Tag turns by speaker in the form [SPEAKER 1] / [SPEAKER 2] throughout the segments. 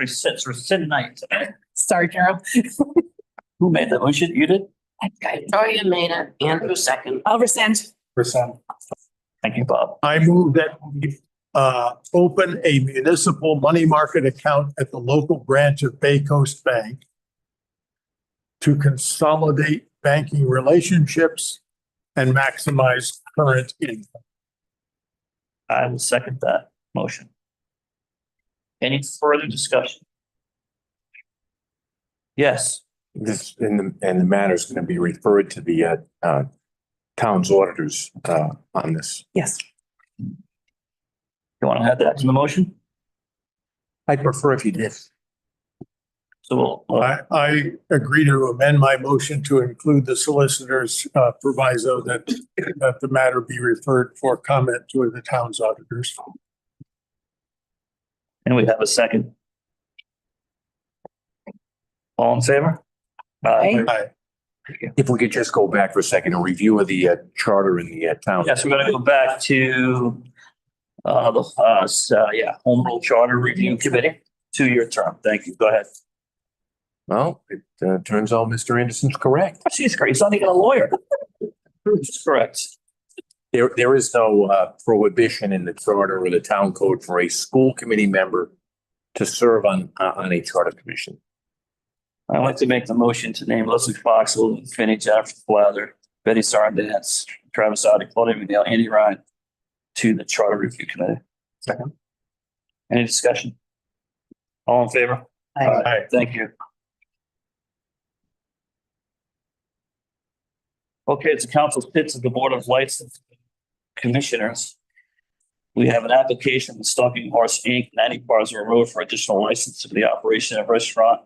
[SPEAKER 1] rescind, rescind night.
[SPEAKER 2] Sorry, Carol.
[SPEAKER 1] Who made that motion? You did?
[SPEAKER 3] Victoria made it, Andrew second.
[SPEAKER 2] I'll rescind.
[SPEAKER 4] Percent.
[SPEAKER 1] Thank you, Bob.
[SPEAKER 4] I move that we uh, open a municipal money market account at the local branch of Bay Coast Bank to consolidate banking relationships and maximize current income.
[SPEAKER 1] I will second that motion. Any further discussion? Yes,
[SPEAKER 5] This, and the, and the matter's gonna be referred to the, uh, uh, town's auditors, uh, on this.
[SPEAKER 2] Yes.
[SPEAKER 1] you want to add that to the motion?
[SPEAKER 5] I'd prefer if you did.
[SPEAKER 1] So we'll,
[SPEAKER 4] I, I agree to amend my motion to include the solicitor's uh, proviso that, that the matter be referred for comment to the town's auditors.
[SPEAKER 1] and we have a second. All in favor? Uh,
[SPEAKER 2] Aye.
[SPEAKER 4] Aye.
[SPEAKER 5] If we could just go back for a second, a review of the, uh, charter in the, uh, town.
[SPEAKER 1] Yes, we're gonna go back to uh, the, uh, s- uh, yeah, Home Rule Charter Review Committee, two-year term. Thank you. Go ahead.
[SPEAKER 5] Well, it, uh, turns out Mr. Anderson's correct.
[SPEAKER 1] She's great. He's not even a lawyer. Correct.
[SPEAKER 5] There, there is no, uh, prohibition in the charter or the town code for a school committee member to serve on, uh, on a charter commission.
[SPEAKER 1] I'd like to make the motion to name Leslie Fox, Lily Finney, Jennifer Blather, Betty Sarandis, Travis Audi, Claudia McNeil, Andy Ryan to the Charter Review Committee. Second. Any discussion? All in favor?
[SPEAKER 4] Aye.
[SPEAKER 1] Thank you. Okay, it's the council pits of the Board of License Commissioners. We have an application with Stalking Horse Inc., ninety Barzar Road for additional license for the operation of restaurant.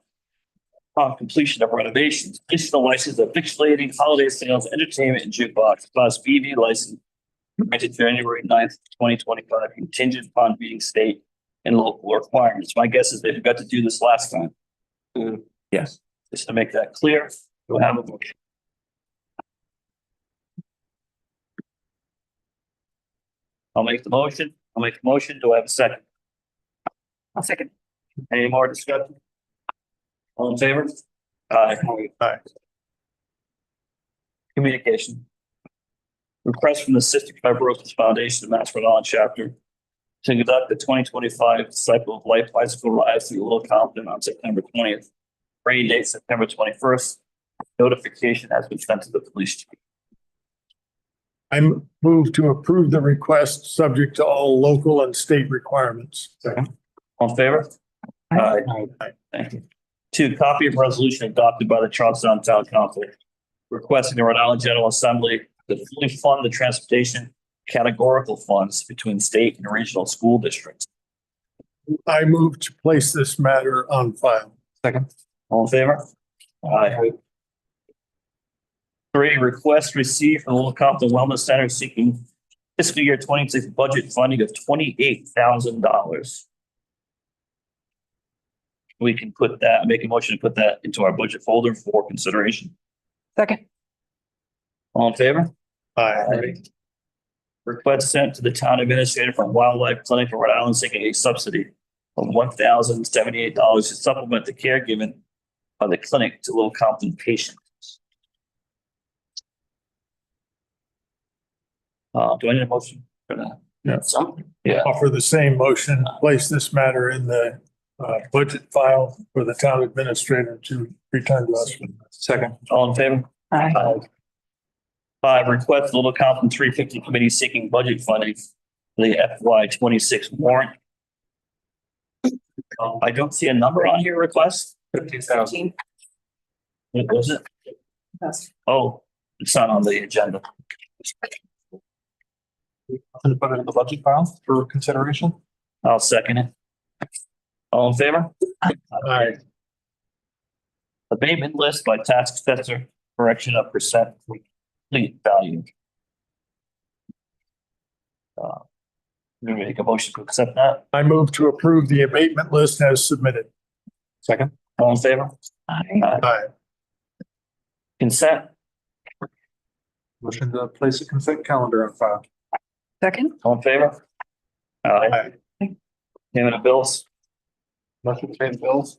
[SPEAKER 1] Upon completion of renovations, additional license of victualling, holiday sales, entertainment and jukebox, class BV license. Granted January 9th, twenty twenty-five, contingent upon meeting state and local requirements. My guess is they forgot to do this last time
[SPEAKER 5] Yes.
[SPEAKER 1] just to make that clear, we'll have a motion. I'll make the motion, I'll make the motion, do I have a second?
[SPEAKER 2] I'll second.
[SPEAKER 1] Any more discussion? All in favor? Aye.
[SPEAKER 4] Aye.
[SPEAKER 1] Communication. Request from the Cystic Fibrosis Foundation of Mass Rhode Island Chapter to conduct the twenty twenty-five Cycle of Life Bicycle Ride through Little Compton on September twentieth. Rain date September twenty-first. Notification has been sent to the police chief.
[SPEAKER 4] I move to approve the request, subject to all local and state requirements.
[SPEAKER 1] All in favor?
[SPEAKER 2] Aye.
[SPEAKER 1] Aye. Thank you. Two, copy of resolution adopted by the Charlestown Town Council requesting the Rhode Island General Assembly to fully fund the transportation categorical funds between state and regional school districts.
[SPEAKER 4] I move to place this matter on file.
[SPEAKER 1] All in favor? Aye. Three, request received from the Little Compton Wellness Center seeking fiscal year twenty-six budget funding of twenty-eight thousand dollars. We can put that, make a motion to put that into our budget folder for consideration.
[SPEAKER 2] Second.
[SPEAKER 1] All in favor?
[SPEAKER 4] Aye.
[SPEAKER 1] Request sent to the town administrator from Wildlife Clinic of Rhode Island seeking a subsidy of one thousand seventy-eight dollars to supplement the care given by the clinic to Little Compton patients. Uh, do I need a motion for that?
[SPEAKER 3] Something.
[SPEAKER 1] Yeah.
[SPEAKER 4] Offer the same motion, place this matter in the uh, budget file for the town administrator to return to us.
[SPEAKER 5] Second.
[SPEAKER 1] All in favor?
[SPEAKER 2] Aye.
[SPEAKER 1] Uh, Five, request the Little Compton three fifty committee seeking budget funding for the FY twenty-six warrant. Um, I don't see a number on your request.
[SPEAKER 5] Fifteen thousand.
[SPEAKER 1] What was it? Oh, it's not on the agenda.
[SPEAKER 6] to put it in the budget file for consideration.
[SPEAKER 1] I'll second it. All in favor?
[SPEAKER 4] Aye.
[SPEAKER 1] Abatement list by tax assessor, correction of percent complete value. Uh, we make a motion to accept that.
[SPEAKER 4] I move to approve the abatement list as submitted.
[SPEAKER 6] Second.
[SPEAKER 1] All in favor?
[SPEAKER 2] Aye.
[SPEAKER 4] Aye.
[SPEAKER 1] Consent?
[SPEAKER 6] Motion to place a consent calendar on file.
[SPEAKER 2] Second.
[SPEAKER 1] All in favor? Aye.
[SPEAKER 4] Aye.
[SPEAKER 1] Payment of bills?
[SPEAKER 6] Motion to pay the bills?